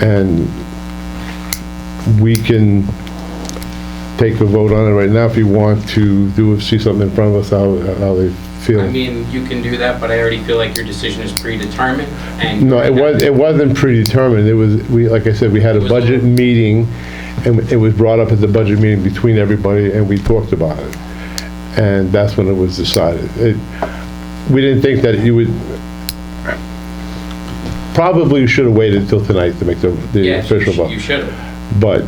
And we can take a vote on it right now if you want to do, see something in front of us, how, how they I feel. mean, you can do that, but I already feel like your decision is predetermined and. No, it was, it wasn't predetermined, it was, we, like I said, we had a It was- budget meeting, and it was brought up at the budget meeting between everybody, and we talked about it. And that's when it was decided. It, we didn't think that you would, probably you should have waited until tonight to make the, the Yes, you official sh- you vote. should have. But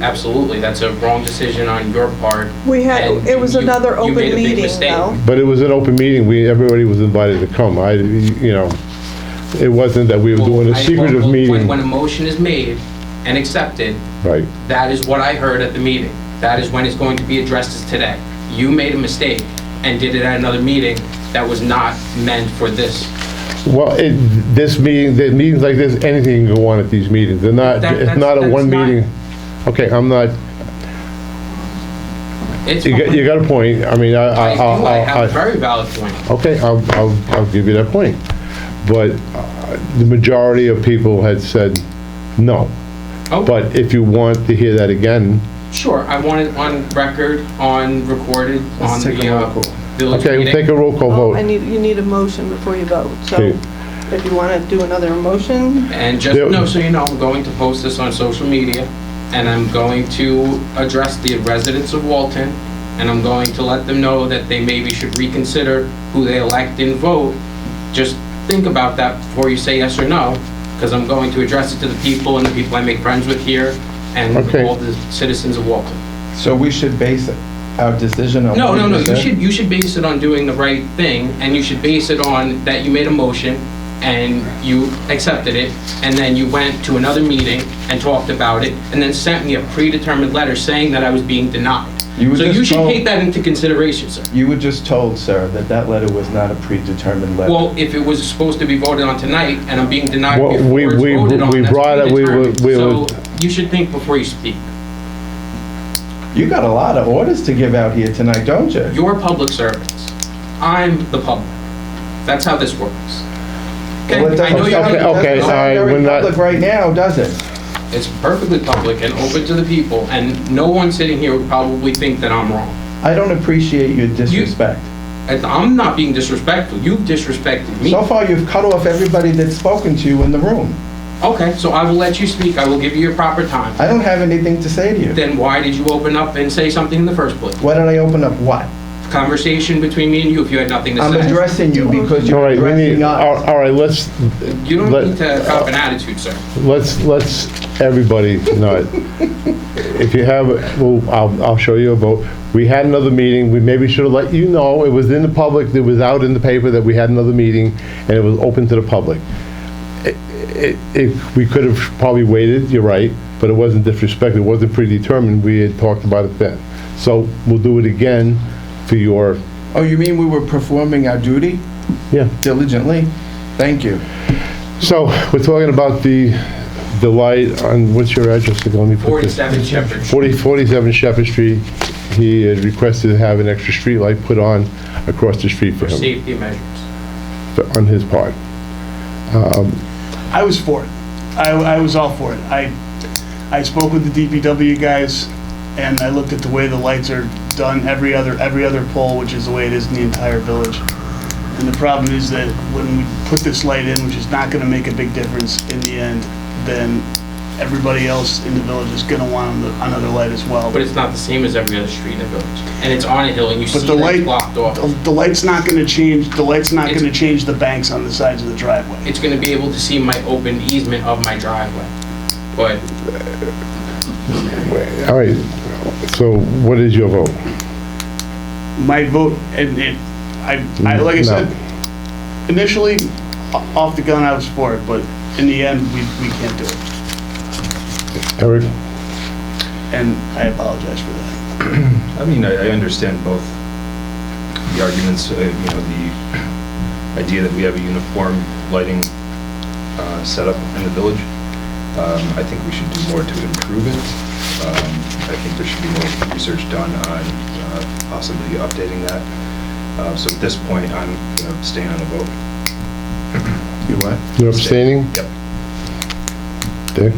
Absolutely. That's a wrong decision on your part. We had, and it was you- another you open made a big meeting, mistake. though. But it was an open meeting, we, everybody was invited to come, I, you know, it wasn't that we were doing a Well, I- well, secretive when- meeting, When a motion is made and accepted, right? that is what I heard at the meeting. That is when it's going to be addressed is today. You made a mistake and did it at another meeting that was not meant for this. Well, it, this meeting, the meetings like this, anything can go on at these meetings, they're not, That- it's that's- not a that's one not- meeting. Okay, I'm not, It's. you got, you uh, got a point, I mean, I, I, I do, I'll- I have a I'll- I, very valid point. okay, I'll, I'll, I'll give you that point. But uh, the majority of people had said no, Oh. but if you want to hear that again, Sure, I want it on record, on recorded, on Let's take the, a roll uh, call. village okay, we'll take meeting. a roll call Oh, I vote. need, you need a motion before you vote, so Okay. if you want to do another motion, And just, There- no, so you know, I'm going to post this on social media, and I'm going to address the residents of Walton, and I'm going to let them know that they maybe should reconsider who they elect and vote. Just think about that before you say yes or no, because I'm going to address it to the people and the people I make friends with here, and Okay. all the citizens of Walton. So we should base our decision on. No, what no, you no, you said? should, you should base it on doing the right thing, and you should base it on that you made a motion, and you accepted it, and then you went to another meeting and talked about it, and then sent me a predetermined letter saying that I was being denied. You were So you just should told- take that into consideration, sir. You were just told, sir, that that letter was not a predetermined letter. Well, if it was supposed to be voted on tonight, and I'm being denied Well, before we- it's we- voted on, we that's brought it- we were- predetermined. we were- So you should think before you speak. You got a lot of orders to give out here tonight, don't you? You're public servants. I'm the public. That's how this works. Okay, Well, it I doesn't- know you're Okay, gonna- okay, It's not all right, very we're not- public right now, does it? It's perfectly public and open to the people, and no one sitting here would probably think that I'm wrong. I don't appreciate your disrespect. And I'm not being disrespectful, you've disrespected me. So far, you've cut off everybody that's spoken to you in the room. Okay, so I will let you speak, I will give you your proper time. I don't have anything to say to you. Then why did you open up and say something in the first place? Why don't I open up what? Conversation between me and you if you had nothing to I'm say. addressing you because All you're right, we need, addressing all us. all right, let's, You Let- don't need to cop an attitude, sir. let's, let's, everybody, no. If you have, well, I'll, I'll show you a vote. We had another meeting, we maybe should have let you know, it was in the public, it was out in the paper that we had another meeting, and it was open to the public. It- it- It, we could have probably waited, you're right, but it wasn't disrespect, it wasn't predetermined, we had talked about it then. So we'll do it again for your, Oh, you mean we were performing our duty yeah. diligently? Thank you. So, we're talking about the, the light on, what's your address, let me put this. 47 Shepherd. 40 47 Shepherd Street, he had requested to have an extra street light put on across the street for him, Safety measures. for- on his part. I was for it. I, I was all for it. I, I spoke with the DPW guys, and I looked at the way the lights are done every other, every other pole, which is the way it is in the entire village. And the problem is that when we put this light in, which is not gonna make a big difference in the end, then everybody else in the village is gonna want another light as well. But it's not the same as every other street in the village. And it's on a hill and you see But the that light, it's blocked off. the the light's not gonna change, the light's not It's- gonna change the banks on the sides of the driveway. it's gonna be able to see my open easement of my driveway. But All right, so what is your vote? my vote, and it, I, I, like I No. said, initially, o- off the gun, I was for it, but in the end, we, we can't do it. Eric? And I apologize for that. I mean, I, I understand both the arguments, uh, you know, the idea that we have a uniform lighting uh, setup in the village. Um, I think we should do more to improve it. Um, I think there should be more research done on uh, possibly updating that. Uh, So at this point, I'm, you know, staying on the vote. You what? You're abstaining? Yep.